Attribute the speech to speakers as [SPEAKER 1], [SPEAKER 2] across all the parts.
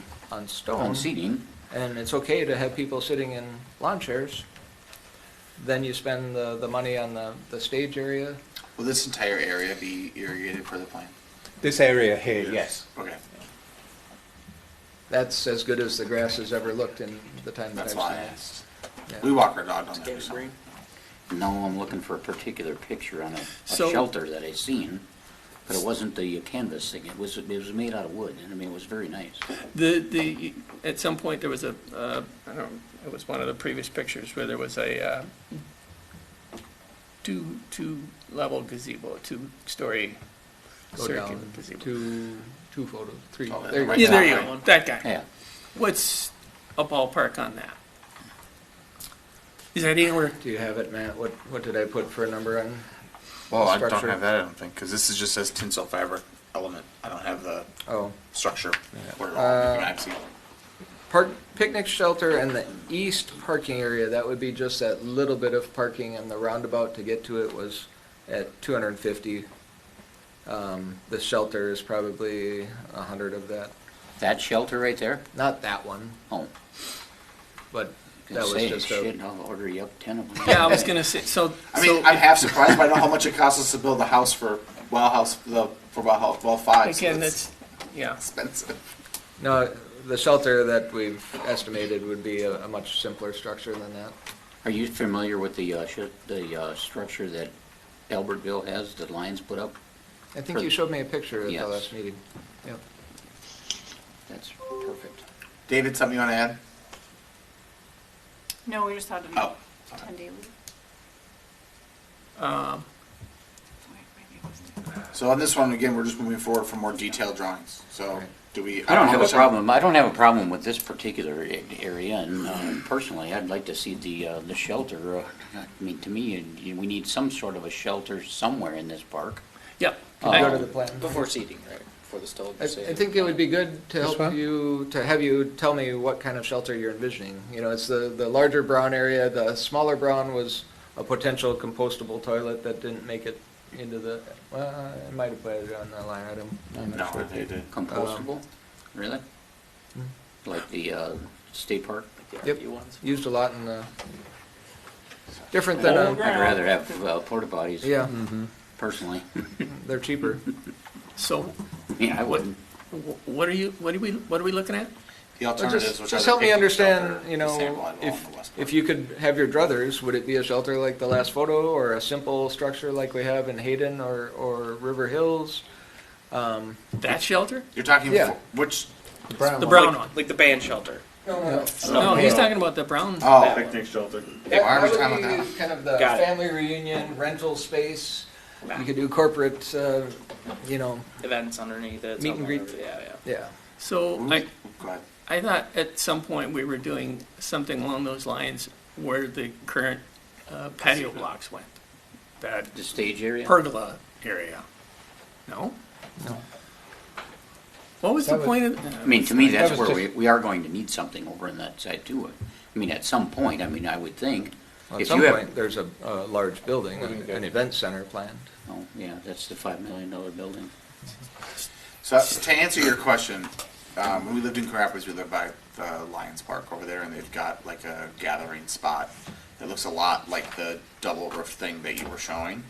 [SPEAKER 1] on
[SPEAKER 2] on
[SPEAKER 1] stone,
[SPEAKER 3] Uh-huh.
[SPEAKER 2] seating.
[SPEAKER 1] and it's okay to have people sitting in lawn chairs, then you spend the, the money on the, the stage area.
[SPEAKER 3] Will this entire area be irrigated for the plan?
[SPEAKER 4] This area here, yes.
[SPEAKER 3] Okay,
[SPEAKER 1] That's as good as the grass has ever looked in the time that I've
[SPEAKER 3] that's
[SPEAKER 1] seen
[SPEAKER 3] why I
[SPEAKER 1] it.
[SPEAKER 3] asked.
[SPEAKER 1] Yeah.
[SPEAKER 3] We walk our dog on that. every summer.
[SPEAKER 2] No, I'm looking for a particular picture on a, a
[SPEAKER 5] So-
[SPEAKER 2] shelter that I seen, but it wasn't the canvas thing. It was, it was made out of wood, and I mean, it was very nice.
[SPEAKER 5] The, the, at some point, there was a, uh, I don't, it was one of the previous pictures where there was a, uh, two, two-level gazebo, two-story
[SPEAKER 1] Go
[SPEAKER 5] circular
[SPEAKER 1] down
[SPEAKER 5] gazebo.
[SPEAKER 1] two, two photos, three.
[SPEAKER 3] Oh,
[SPEAKER 1] There you go.
[SPEAKER 3] right
[SPEAKER 5] Yeah, there you
[SPEAKER 3] Yeah.
[SPEAKER 5] go, that guy.
[SPEAKER 2] Yeah,
[SPEAKER 5] What's a ballpark on that? Is that anywhere,
[SPEAKER 1] Do you have it, Matt? What, what did I put for a number on?
[SPEAKER 3] Well, I don't
[SPEAKER 1] Structure.
[SPEAKER 3] have that, I don't think, because this is just says tinsel fiber element. I don't have the
[SPEAKER 1] Oh,
[SPEAKER 3] structure where it
[SPEAKER 1] Uh,
[SPEAKER 3] all maps out.
[SPEAKER 1] park, picnic shelter and the east parking area, that would be just that little bit of parking and the roundabout to get to it was at two hundred and fifty. Um, the shelter is probably a hundred of that.
[SPEAKER 2] that shelter right there?
[SPEAKER 1] Not that one,
[SPEAKER 2] Oh,
[SPEAKER 1] but
[SPEAKER 2] can
[SPEAKER 1] that was
[SPEAKER 2] say,
[SPEAKER 1] just a,
[SPEAKER 2] shit, I'll order you up ten of them.
[SPEAKER 5] yeah, I was gonna say, so,
[SPEAKER 3] I
[SPEAKER 5] so,
[SPEAKER 3] mean, I'm half surprised, but I know how much it costs us to build a house for well house the for well house well five. so
[SPEAKER 5] again,
[SPEAKER 3] it's
[SPEAKER 5] that's, yeah.
[SPEAKER 3] expensive.
[SPEAKER 1] no, the shelter that we've estimated would be a, a much simpler structure than that.
[SPEAKER 2] Are you familiar with the, uh, sh- the, uh, structure that Albertville has, that Lions put up?
[SPEAKER 1] I think you showed me a picture at the
[SPEAKER 2] Yes.
[SPEAKER 1] last meeting. Yep.
[SPEAKER 2] That's perfect.
[SPEAKER 3] David, something you want to add?
[SPEAKER 6] No, we just had an
[SPEAKER 3] Oh,
[SPEAKER 6] ten day leave.
[SPEAKER 5] Um,
[SPEAKER 3] so on this one again, we're just moving forward for more detailed drawings. So do we?
[SPEAKER 2] I don't have a
[SPEAKER 3] Michelle?
[SPEAKER 2] problem, I don't have a problem with this particular a- area, and um, personally, I'd like to see the, uh, the shelter. uh, I mean, to me, and you- we need some sort of a shelter somewhere in this park.
[SPEAKER 5] yeah,
[SPEAKER 1] Can you
[SPEAKER 2] Uh,
[SPEAKER 1] go
[SPEAKER 5] Um,
[SPEAKER 1] to the plan?
[SPEAKER 7] Before seating, right, before the stove.
[SPEAKER 1] I, I think it would be good to help you, to have you tell me what kind of shelter you're envisioning. You know, it's the, the larger brown area, the smaller brown was a potential compostable toilet that didn't make it into the, well, I might have put it on the line item.
[SPEAKER 2] Mm.
[SPEAKER 1] I'm
[SPEAKER 3] No,
[SPEAKER 1] not sure.
[SPEAKER 3] they did.
[SPEAKER 1] Um,
[SPEAKER 2] Compostable, really? Like the, uh, state park?
[SPEAKER 1] Hmm. Yep.
[SPEAKER 7] You want some?
[SPEAKER 1] Used a lot in the, different than
[SPEAKER 7] Old
[SPEAKER 1] a,
[SPEAKER 2] I'd rather have uh, porta potties.
[SPEAKER 1] um, yeah,
[SPEAKER 2] Personally,
[SPEAKER 1] they're cheaper.
[SPEAKER 5] so,
[SPEAKER 2] yeah, I wouldn't.
[SPEAKER 5] wh- what are you, what are we, what are we looking at?
[SPEAKER 3] The
[SPEAKER 1] Well,
[SPEAKER 3] alternatives,
[SPEAKER 1] Just,
[SPEAKER 3] which
[SPEAKER 1] just
[SPEAKER 3] are the
[SPEAKER 1] help me
[SPEAKER 3] picnic
[SPEAKER 1] understand,
[SPEAKER 3] shelter,
[SPEAKER 1] you
[SPEAKER 3] the sample
[SPEAKER 1] know,
[SPEAKER 3] on the
[SPEAKER 1] if,
[SPEAKER 3] west
[SPEAKER 1] if
[SPEAKER 3] part.
[SPEAKER 1] you could have your druthers, would it be a shelter like the last photo or a simple structure like we have in Hayden or, or River Hills? Um,
[SPEAKER 5] That shelter?
[SPEAKER 3] You're talking
[SPEAKER 1] Yeah.
[SPEAKER 3] for, which
[SPEAKER 5] The brown one?
[SPEAKER 7] Like the band shelter.
[SPEAKER 5] No, he's talking about the brown.
[SPEAKER 3] oh
[SPEAKER 8] Picnic shelter.
[SPEAKER 3] Hey, why are we
[SPEAKER 1] That
[SPEAKER 3] talking
[SPEAKER 1] would
[SPEAKER 3] about
[SPEAKER 1] be Kind of the
[SPEAKER 7] Got it.
[SPEAKER 1] family reunion, rental space, you could do corporate, uh, you know,
[SPEAKER 7] Events underneath it.
[SPEAKER 1] Meet and
[SPEAKER 7] something,
[SPEAKER 1] greet.
[SPEAKER 7] Yeah, yeah.
[SPEAKER 1] yeah.
[SPEAKER 5] So
[SPEAKER 3] that?
[SPEAKER 5] I,
[SPEAKER 3] oh, Go ahead.
[SPEAKER 5] I thought at some point we were doing something along those lines where the current uh, patio blocks went, that
[SPEAKER 2] The stage area?
[SPEAKER 5] pergola area. No?
[SPEAKER 1] No.
[SPEAKER 5] What was the
[SPEAKER 1] That was-
[SPEAKER 5] point of? uh,
[SPEAKER 2] I mean, to me, that's
[SPEAKER 4] was
[SPEAKER 2] where
[SPEAKER 4] just-
[SPEAKER 2] we, we are going to need something over on that side too. I mean, at some point, I mean, I would think.
[SPEAKER 1] At
[SPEAKER 2] if
[SPEAKER 1] some
[SPEAKER 2] you have-
[SPEAKER 1] point, there's a, a large building, an an event center planned.
[SPEAKER 2] Oh, yeah, that's the five million dollar building.
[SPEAKER 3] So to answer your question, um, when we lived in Coon Rapids, we lived by the Lions Park over there, and they've got like a gathering spot that looks a lot like the double roof thing that you were showing.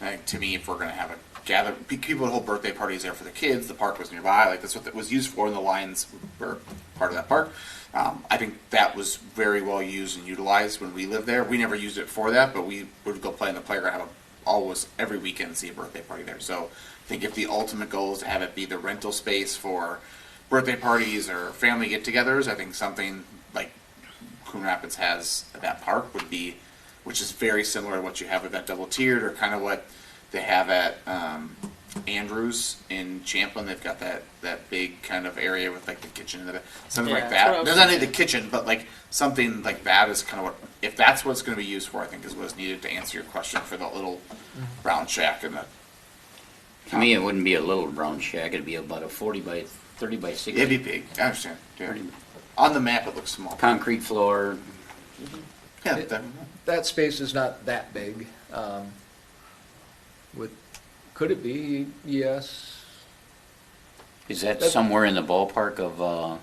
[SPEAKER 3] Like, uh, to me, if we're gonna have a gather, pe- people would hold birthday parties there for the kids. The park was nearby, like that's what it was used for, and the Lions were part of that park. Um, I think that was very well used and utilized when we lived there. We never used it for that, but we would go play in the playground, have a, always every weekend see a birthday party there. So I think if the ultimate goal is to have it be the rental space for birthday parties or family get-togethers, I think something like Coon Rapids has at that park would be, which is very similar to what you have at that double tiered or kind of what they have at um, Andrews in Champlin. They've got that, that big kind of area with like the kitchen, and the, something
[SPEAKER 7] Yeah,
[SPEAKER 3] like
[SPEAKER 7] that's what I
[SPEAKER 3] that.
[SPEAKER 7] was
[SPEAKER 3] There's not need the kitchen, but like something like that is kind of what, if that's what it's going to be used for, I think is what's needed to answer your question for that little brown shack and the.
[SPEAKER 2] To me, it wouldn't be a little brown shack, it'd be about a forty by, thirty by
[SPEAKER 3] It'd be
[SPEAKER 2] sixty.
[SPEAKER 3] big. I understand. Yeah.
[SPEAKER 2] Pretty-
[SPEAKER 3] On the map, it looks small.
[SPEAKER 2] Concrete floor,
[SPEAKER 3] Yeah, that-
[SPEAKER 1] that space is not that big. Um, With, could it be? E Yes.
[SPEAKER 2] is that
[SPEAKER 1] That's-
[SPEAKER 2] somewhere in the ballpark of, uh,